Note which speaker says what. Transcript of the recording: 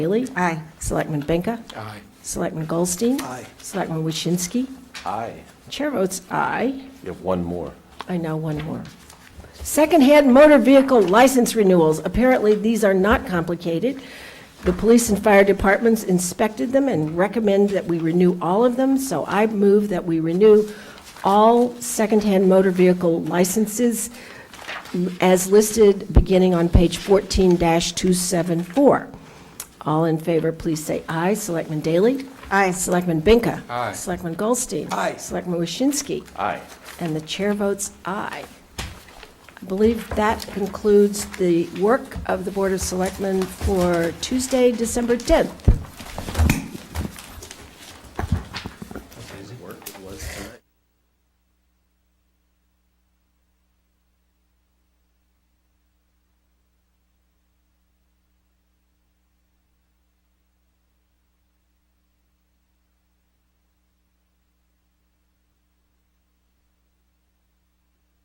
Speaker 1: Bailey?
Speaker 2: Aye.
Speaker 1: Selectman Benka?
Speaker 3: Aye.
Speaker 1: Selectman Goldstein?
Speaker 3: Aye.
Speaker 1: Selectman Waschinsky?
Speaker 4: Aye.
Speaker 1: Chair votes aye.
Speaker 4: You have one more.
Speaker 1: I know one more. Secondhand motor vehicle license renewals. Apparently, these are not complicated. The police and fire departments inspected them and recommend that we renew all of them, so I move that we renew all secondhand motor vehicle licenses as listed, beginning on page 14-274. All in favor, please say aye. Selectman Daley?
Speaker 2: Aye.
Speaker 1: Selectman Binka?
Speaker 3: Aye.
Speaker 1: Selectman Goldstein?
Speaker 3: Aye.
Speaker 1: Selectman Waschinsky?
Speaker 4: Aye.
Speaker 1: And the chair votes aye. I believe that concludes the work of the Board of Selectmen for Tuesday, December 10th.